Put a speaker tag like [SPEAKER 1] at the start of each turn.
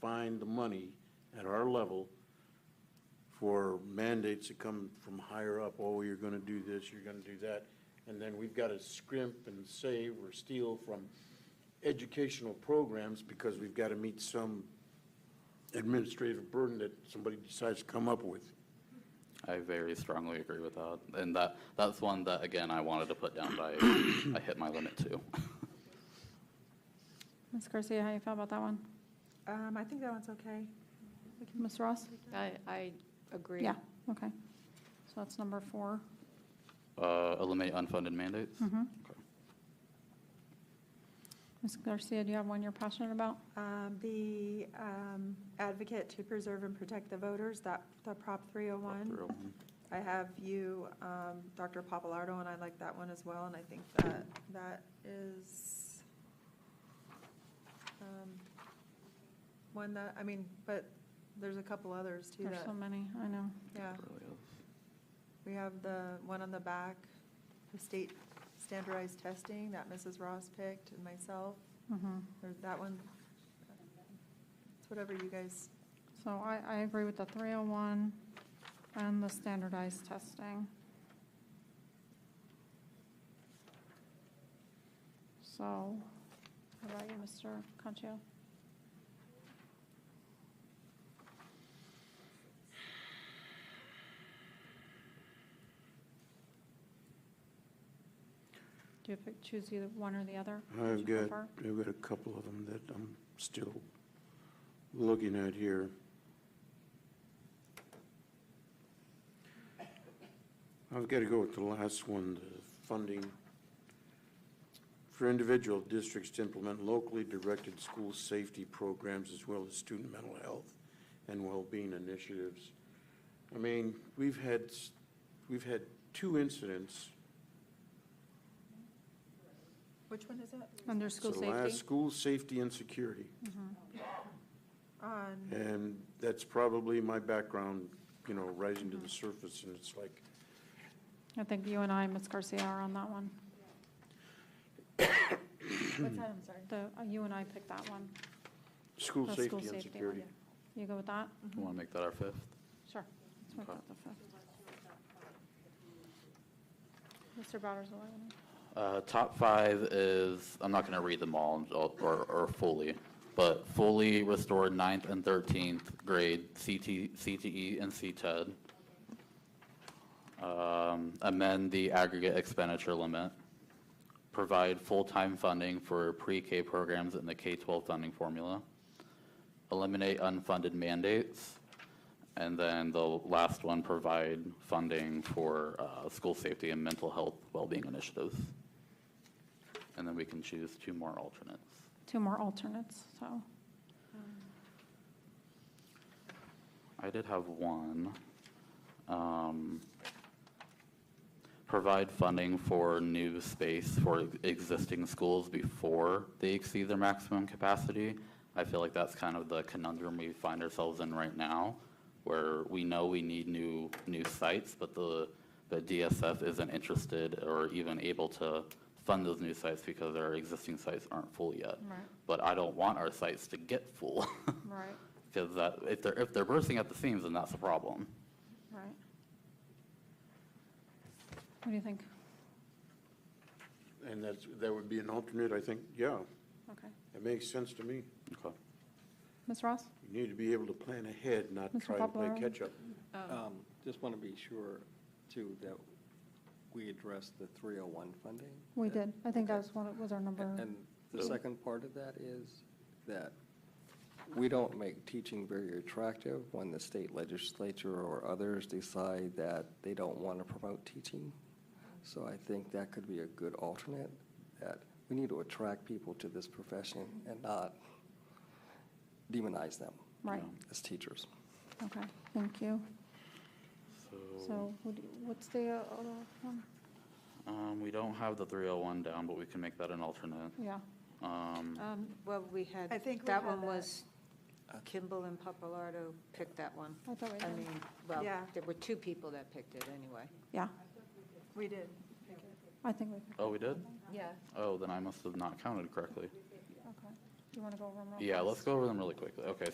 [SPEAKER 1] find the money at our level for mandates that come from higher up, oh, you're gonna do this, you're gonna do that. And then we've gotta scrimp and save or steal from educational programs because we've gotta meet some administrative burden that somebody decides to come up with.
[SPEAKER 2] I very strongly agree with that. And that, that's one that, again, I wanted to put down, but I I hit my limit too.
[SPEAKER 3] Ms. Garcia, how you feel about that one?
[SPEAKER 4] Um, I think that one's okay.
[SPEAKER 3] Ms. Ross?
[SPEAKER 5] I, I agree.
[SPEAKER 3] Yeah, okay. So that's number four.
[SPEAKER 2] Uh, Eliminate unfunded mandates?
[SPEAKER 4] Hmm.
[SPEAKER 3] Mhm.
[SPEAKER 2] Okay.
[SPEAKER 3] Ms. Garcia, do you have one you're passionate about?
[SPEAKER 4] Um, the, um, advocate to preserve and protect the voters, that, the Prop three oh one.
[SPEAKER 2] Through.
[SPEAKER 4] I have you, um, Dr. Papalardo, and I like that one as well, and I think that, that is, um, one that, I mean, but there's a couple others too
[SPEAKER 3] There's
[SPEAKER 4] that,
[SPEAKER 3] so many, I know.
[SPEAKER 4] yeah.
[SPEAKER 2] Really is.
[SPEAKER 4] We have the one on the back, the state standardized testing that Mrs. Ross picked and myself,
[SPEAKER 3] Mhm.
[SPEAKER 4] or that one. It's whatever you guys,
[SPEAKER 3] So I, I agree with the 301 and the standardized testing. So, how about you, Mr. Concho? Do you pick, choose either one or the other? Which
[SPEAKER 1] I've
[SPEAKER 3] you
[SPEAKER 1] got,
[SPEAKER 3] prefer?
[SPEAKER 1] I've got a couple of them that I'm still looking at here. I've got to go with the last one, the funding. For individual districts to implement locally directed school safety programs as well as student mental health and well-being initiatives. I mean, we've had, s- we've had two incidents
[SPEAKER 4] which one is it?
[SPEAKER 3] Under school
[SPEAKER 1] So last,
[SPEAKER 3] safety?
[SPEAKER 1] school safety and security,
[SPEAKER 4] On,
[SPEAKER 1] and that's probably my background, you know, rising to the surface, and it's like,
[SPEAKER 3] I think you and I, Ms. Garcia, are on that one.
[SPEAKER 4] what's that, I'm sorry?
[SPEAKER 3] The, uh, you and I picked that one.
[SPEAKER 1] school
[SPEAKER 3] The
[SPEAKER 1] safety and
[SPEAKER 3] safety one,
[SPEAKER 1] security.
[SPEAKER 3] You go with that?
[SPEAKER 4] Mm-hmm.
[SPEAKER 2] You want to make that our fifth?
[SPEAKER 3] Sure. Let's make
[SPEAKER 2] Mm-hmm. Okay.
[SPEAKER 3] that the fifth. Mr. Bowers, what do
[SPEAKER 2] Uh, Top five is, I'm not going to read them all or- or or fully, but fully restore ninth and 13th grade CT CTE E and CTED. Um, Amend the aggregate expenditure limit. Provide full-time funding for pre-K programs in the K-12 funding formula. Eliminate unfunded mandates. And then the last one, provide funding for uh, school safety and mental health well-being initiatives. And then we can choose two more alternates.
[SPEAKER 3] Two more alternates, so.
[SPEAKER 2] I did have one. Um, Provide funding for new space for existing schools before they exceed their maximum capacity. I feel like that's kind of the conundrum we find ourselves in right now, where we know we need new, new sites, but the, the DSF isn't interested or even able to fund those new sites because our existing sites aren't full yet.
[SPEAKER 3] Right.
[SPEAKER 2] But I don't want our sites to get full.
[SPEAKER 3] Right,
[SPEAKER 2] Because that, uh, if they're, if they're bursting at the seams, then that's a problem.
[SPEAKER 3] right. What do you think?
[SPEAKER 1] And that's, that would be an alternate, I think, yeah,
[SPEAKER 3] Okay.
[SPEAKER 1] it makes sense to me.
[SPEAKER 2] Okay.
[SPEAKER 3] Ms. Ross?
[SPEAKER 1] You need to be able to plan ahead, not
[SPEAKER 3] Mr.
[SPEAKER 1] try to play
[SPEAKER 3] Papalardo?
[SPEAKER 1] catch-up.
[SPEAKER 6] Um, Just want to be sure, too, that we address the 301 funding.
[SPEAKER 3] We did. I think that
[SPEAKER 6] Uh, Okay.
[SPEAKER 3] was one, was our number.
[SPEAKER 6] And the second part of that is that we don't make teaching very attractive when the state legislature or others decide that they don't want to promote teaching. So I think that could be a good alternate, that we need to attract people to this profession and not demonize them
[SPEAKER 3] Right,
[SPEAKER 6] as teachers.
[SPEAKER 3] okay, thank you.
[SPEAKER 2] So,
[SPEAKER 3] So who do you- what's the uh, other one?
[SPEAKER 2] um, we don't have the 301 down, but we can make that an alternate.
[SPEAKER 3] Yeah,
[SPEAKER 2] Um,
[SPEAKER 5] Um, Well, we had,
[SPEAKER 4] I think we
[SPEAKER 5] that
[SPEAKER 4] had
[SPEAKER 5] one
[SPEAKER 4] that.
[SPEAKER 5] was, Kimball and Papalardo picked that one.
[SPEAKER 3] I thought we
[SPEAKER 5] I
[SPEAKER 3] had-
[SPEAKER 5] mean, well,
[SPEAKER 4] Yeah.
[SPEAKER 5] there were two people that picked it anyway.
[SPEAKER 3] yeah,
[SPEAKER 4] We did.
[SPEAKER 3] I think we, picked-
[SPEAKER 2] oh, we did?
[SPEAKER 5] Yeah.
[SPEAKER 2] Oh, then I must have not counted correctly.
[SPEAKER 3] okay. Do you want to go over them real
[SPEAKER 2] Yeah,
[SPEAKER 3] fast?
[SPEAKER 2] let's go over them really quickly. Okay,